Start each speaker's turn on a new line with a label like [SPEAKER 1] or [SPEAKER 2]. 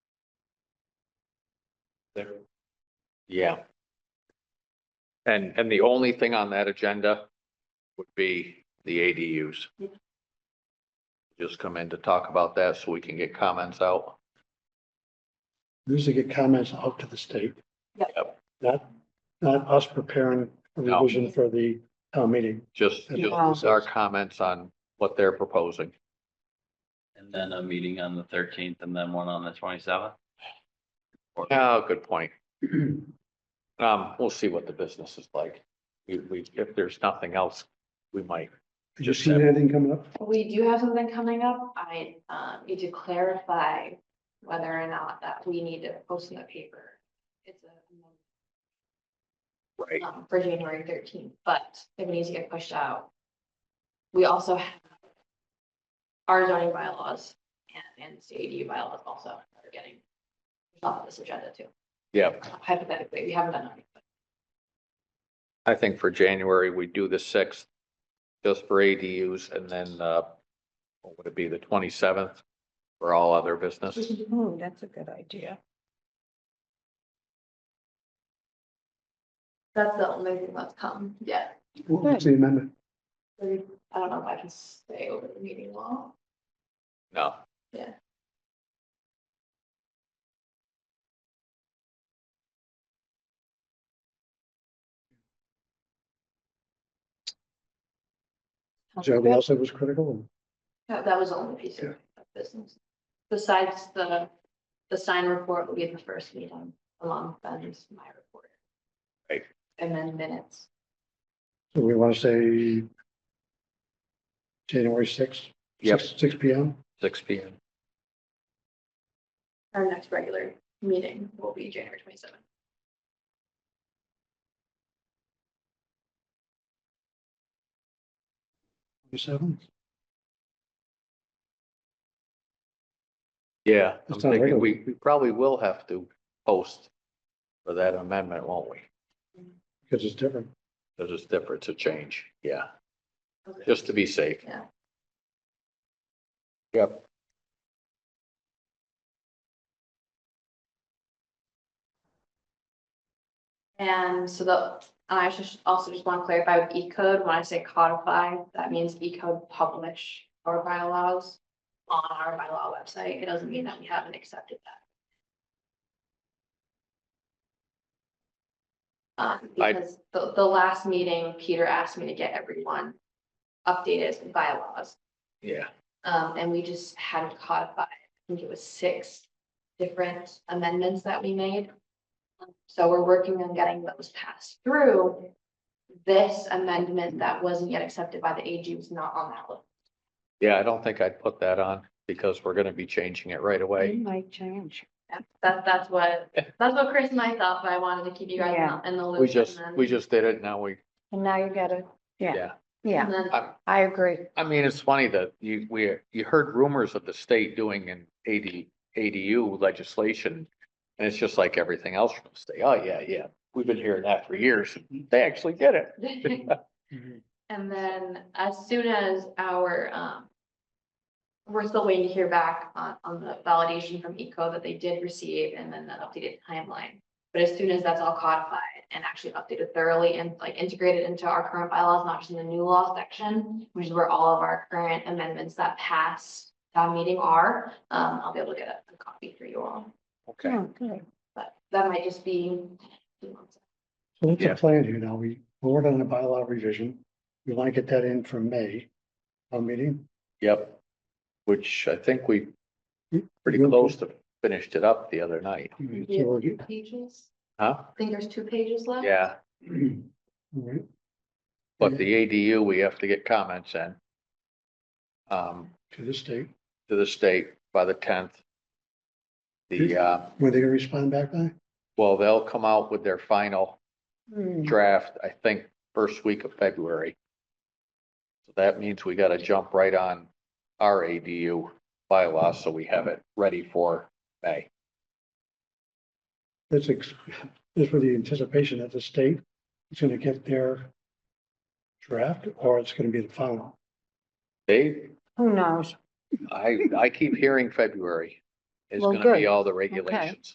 [SPEAKER 1] there.
[SPEAKER 2] Yeah. And, and the only thing on that agenda would be the ADUs. Just come in to talk about that so we can get comments out.
[SPEAKER 3] usually get comments out to the state.
[SPEAKER 2] Yep. Yep.
[SPEAKER 3] Not, not us preparing a
[SPEAKER 2] No.
[SPEAKER 3] revision for the town meeting.
[SPEAKER 2] Just, just our comments on what they're proposing.
[SPEAKER 1] And then a meeting on the thirteenth and then one on the twenty-seventh.
[SPEAKER 2] Oh, good point. Um, we'll see what the business is like. We, we, if there's nothing else, we might.
[SPEAKER 3] Did you
[SPEAKER 2] Just
[SPEAKER 3] see
[SPEAKER 2] that-
[SPEAKER 3] anything coming up?
[SPEAKER 4] We do have something coming up. I um, need to clarify whether or not that we need to post in the paper. It's a,
[SPEAKER 2] Right.
[SPEAKER 4] um, for January thirteenth, but it needs to get pushed out. We also have our zoning bylaws and, and CAD bylaws also are getting off this agenda too.
[SPEAKER 2] Yeah,
[SPEAKER 4] Hypothetically, we haven't done anything.
[SPEAKER 2] I think for January, we do the sixth just for ADUs and then, uh, what would it be, the twenty-seventh for all other business?
[SPEAKER 5] Oh, that's a good idea.
[SPEAKER 4] That's the only thing that's come yet.
[SPEAKER 3] What's the amendment?
[SPEAKER 4] I don't know if I can stay over the meeting law.
[SPEAKER 2] No.
[SPEAKER 4] Yeah.
[SPEAKER 3] Is there anything else that was critical?
[SPEAKER 4] That, that was the only piece of of business. Besides the, the sign report will be the first meeting along with Ben's, my report.
[SPEAKER 2] Right.
[SPEAKER 4] And then minutes.
[SPEAKER 3] So we want to say January sixth?
[SPEAKER 2] Yep.
[SPEAKER 3] Six P M?
[SPEAKER 2] Six P M.
[SPEAKER 4] Our next regular meeting will be January twenty-seventh.
[SPEAKER 3] Seven?
[SPEAKER 2] Yeah, I'm
[SPEAKER 3] It's not
[SPEAKER 2] thinking we,
[SPEAKER 3] regular.
[SPEAKER 2] we probably will have to post for that amendment, won't we?
[SPEAKER 3] Because it's different.
[SPEAKER 2] Because it's different, it's a change, yeah, just to be safe.
[SPEAKER 4] Yeah.
[SPEAKER 2] Yep.
[SPEAKER 4] And so the, I just also just want to clarify with E code, when I say codify, that means E code publish our bylaws on our bylaw website. It doesn't mean that we haven't accepted that. Um,
[SPEAKER 2] I-
[SPEAKER 4] because the, the last meeting, Peter asked me to get everyone updated bylaws.
[SPEAKER 2] Yeah,
[SPEAKER 4] Um, and we just hadn't codified, I think it was six different amendments that we made. Um, So we're working on getting those passed through. This amendment that wasn't yet accepted by the AG was not on that list.
[SPEAKER 2] yeah, I don't think I'd put that on because we're gonna be changing it right
[SPEAKER 5] It
[SPEAKER 2] away.
[SPEAKER 5] might change.
[SPEAKER 4] That- That, that's what, that's what Chris and I thought, but I wanted to keep you guys
[SPEAKER 5] Yeah.
[SPEAKER 4] in the
[SPEAKER 3] Mm-hmm.
[SPEAKER 4] loop.
[SPEAKER 2] We just,
[SPEAKER 4] and then-
[SPEAKER 2] we just did it, now we,
[SPEAKER 5] And now you gotta, yeah,
[SPEAKER 2] yeah.
[SPEAKER 5] yeah,
[SPEAKER 4] and then-
[SPEAKER 2] I,
[SPEAKER 5] I agree.
[SPEAKER 2] I mean, it's funny that you, we, you heard rumors of the state doing an AD, ADU legislation. And it's just like everything else from the state. Oh, yeah, yeah. We've been hearing that for years. They actually did it.
[SPEAKER 4] And then as soon as our, um. We're still waiting to hear back on, on the validation from ECO that they did receive and then the updated timeline. But as soon as that's all codified and actually updated thoroughly and like integrated into our current bylaws, not just in the new law section, which is where all of our current amendments that pass town meeting are, um, I'll be able to get a- a copy for you all.
[SPEAKER 2] Okay.
[SPEAKER 5] Oh, good.
[SPEAKER 4] But that might just be.
[SPEAKER 3] So what's
[SPEAKER 2] Yeah.
[SPEAKER 3] the plan here now? We, we're on a bylaw revision. We want to get that in for May, our meeting.
[SPEAKER 2] Yep. Which I think we pretty close to finished it up the other night,
[SPEAKER 3] So we're-
[SPEAKER 4] Two Pages,
[SPEAKER 2] huh?
[SPEAKER 4] I think there's two pages left.
[SPEAKER 2] Yeah,
[SPEAKER 3] all right.
[SPEAKER 2] but the ADU, we have to get comments in. Um,
[SPEAKER 3] To the state.
[SPEAKER 2] to the state by the tenth. The, uh,
[SPEAKER 3] Were they gonna respond back by?
[SPEAKER 2] well, they'll come out with their final
[SPEAKER 5] Hmm.
[SPEAKER 2] draft, I think, first week of February. So that means we gotta jump right on our ADU bylaw, so we have it ready for May.
[SPEAKER 3] That's ex, that's with the anticipation that the state is gonna get their draft or it's gonna be the final.
[SPEAKER 2] They,
[SPEAKER 5] Who knows?
[SPEAKER 2] I, I keep hearing February is
[SPEAKER 5] Well,
[SPEAKER 2] gonna be
[SPEAKER 5] good.
[SPEAKER 2] all the regulations.